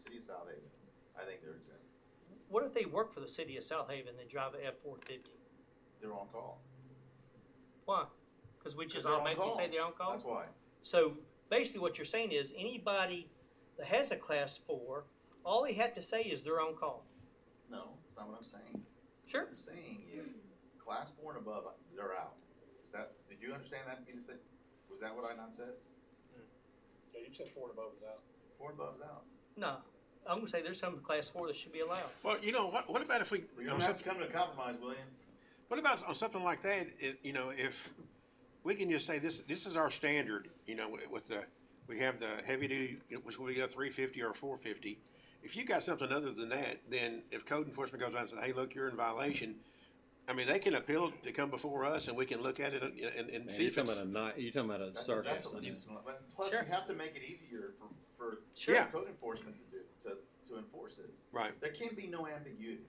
City of South Haven, I think they're exempt. What if they work for the city of South Haven, they drive a F four fifty? They're on call. Why? Cause we just They're on automatically call. say they're on That's call? why. So basically what you're saying is anybody that has a class four, all they have to say is they're on call. No, that's not what I'm saying. Sure. What I'm saying is, class four and above, they're out. Is that, did you understand that being said? Was that what I not said? Yeah, you said four and above is out. Four and above's out. No, I'm gonna say there's some class four that should be allowed. Well, you know, what, what about if we, We on don't have to something- come to a compromise, William. what about on something like that, it, you know, if we can just say this, this is our standard, you know, with the, we have the heavy duty, which we go three fifty or four fifty. If you got something other than that, then if code enforcement goes out and says, hey, look, you're in violation, I mean, they can appeal to come before us and we can look at it and, and- and Man, see you're if it's. talking about a night. You're talking about a That's, that's a sarcasm. legitimate, but plus Sure. you have to make it easier for, for Sure. Yeah. code enforcement to do, to, to enforce it. Right. There can be no ambiguity.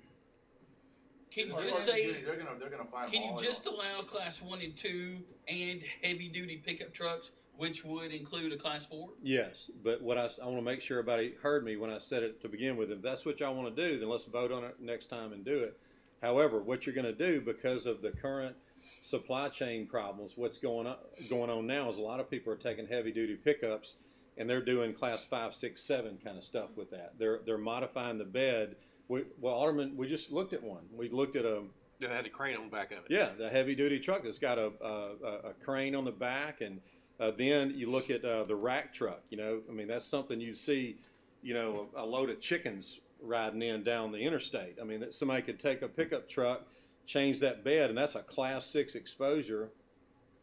Can you There's no just say? ambiguity. They're gonna, they're gonna find Can you all they just want. allow class one and two and heavy duty pickup trucks, which would include a class four? Yes, but what I, want to make sure everybody heard me when I said it to begin with. If that's what y'all want to do, then let's vote on it next time and do it. However, what you're going to do because of the current supply chain problems, what's going on going on now is a lot of people are taking heavy duty pickups and they're doing class five, six, seven kind of stuff with that. They're they're modifying the bed. We, well, Alderman, we just looked at one. We looked at a They had a crane on the back of it. yeah, the heavy duty truck that's got a, a, a- a crane on the back. And uh, then you look at uh, the rack truck, you know, I mean, that's something you see, you know, a, a load of chickens riding in down the interstate. I mean, that somebody could take a pickup truck, change that bed, and that's a class six exposure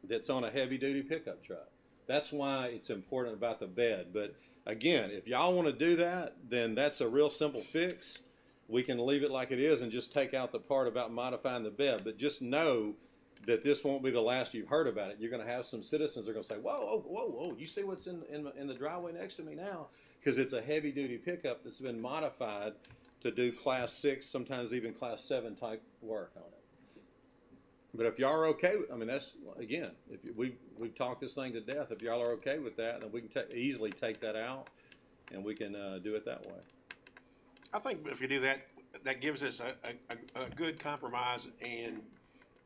that's on a heavy duty pickup truck. That's why it's important about the bed. But again, if y'all want to do that, then that's a real simple fix we can leave it like it is and just take out the part about modifying the bed, but just know that this won't be the last you've heard about it. You're gonna have some citizens that are gonna say, whoa, whoa, whoa, whoa, you see what's in, in, in the driveway next to me now? Cause it's a heavy duty pickup that's been modified to do class six, sometimes even class seven type work on it. But if y'all are okay, with- I mean, that's, again, if you- we, we've talked this thing to death, if y'all are okay with that, then we can ta- easily take that out and we can, uh, do it that way. I think if you do that, that gives us a, a, a- a good compromise and,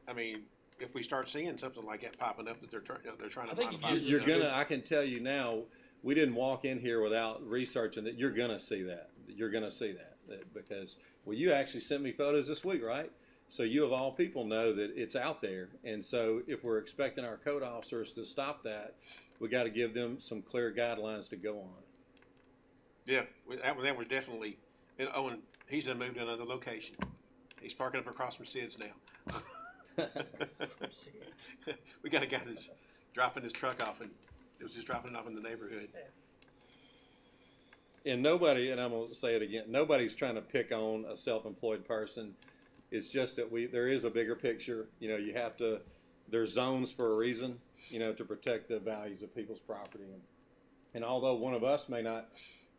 I mean, if we start seeing something like that popping up that they're trying, they're trying to I think it modify. gives You're us gonna, I can tell you now, we didn't walk in here without researching that, you're gonna see that, you're gonna see that, that- because, well, you actually sent me photos this week, right? So you of all people know that it's out there, and so if we're expecting our code officers to stop that, we gotta give them some clear guidelines to go on. Yeah, we- that, was- that was definitely, and Owen, he's done moved to another location. He's parking up across from Sid's now. We got a guy that's dropping his truck off and, it was just dropping it off in the neighborhood. And nobody, and I'm gonna say it again, nobody's trying to pick on a self-employed person. It's just that we, there is a bigger picture, you know, you have to, there's zones for a reason, you know, to protect the values of people's property. And although one of us may not,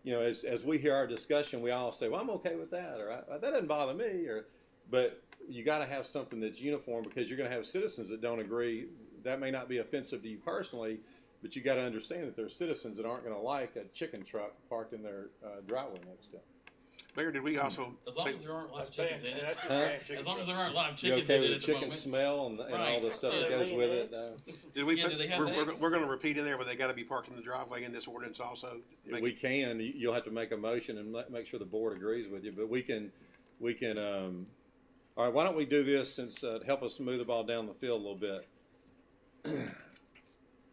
you know, as, as we hear our discussion, we all say, well, I'm okay with that, or "I- that doesn't bother me, or, but you gotta have something that's uniform because you're gonna have citizens that don't agree. That may not be offensive to you personally, but you got to understand that there's citizens that aren't going to like a chicken truck parked in their uh, driveway next to them. Mayor, did we also? Hmm. As long say- as there aren't live That's chickens banned. in Yeah, it. That's just Huh? banned chicken As long as there breast. aren't live You chickens okay in with it the at the chicken moment. smell and, and all the Right. stuff that Yeah. goes with it? Uh, No. Did we Yeah, put, do they have we're, we're, eggs? we're gonna repeat in there, but they gotta be parked in the driveway in this ordinance also? Make- We can, you- you'll have to make a motion and let- make sure the board agrees with you, but we can, we can, um, all right, why don't we do this since, uh, to help us move the ball down the field a little bit?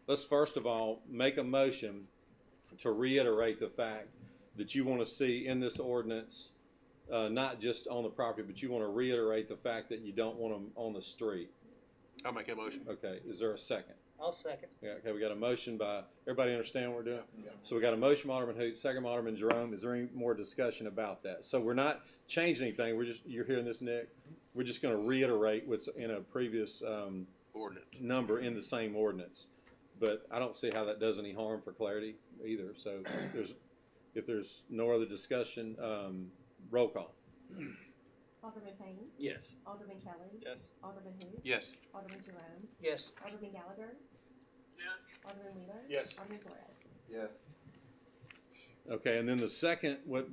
Let's first of all, make a motion to reiterate the fact that you want to see in this ordinance, uh, not just on the property, but you want to reiterate the fact that you don't want them on the street. I'll make a motion. Okay, is there a second? I'll second. Yeah, okay, we got a motion by, everybody understand what we're doing? Yeah. So we got a motion by Alderman Hoot, second by Alderman Jerome. Is there any more discussion about that? So we're not changing anything. We're just, you're hearing this, Nick. We're just gonna reiterate what's in a previous, um, Ordinance. number in the same ordinance. But I don't see how that does any harm for clarity either. So if there's, if there's no other discussion, um, roll call. Alderman Payne, Yes. Alderman Kelly, Yes. Alderman who? Yes. Alderman Jerome, Yes. Alderman Gallagher. Yes. Alderman Wheeler. Yes. Alderman Flores. Yes. Okay, and then the second, what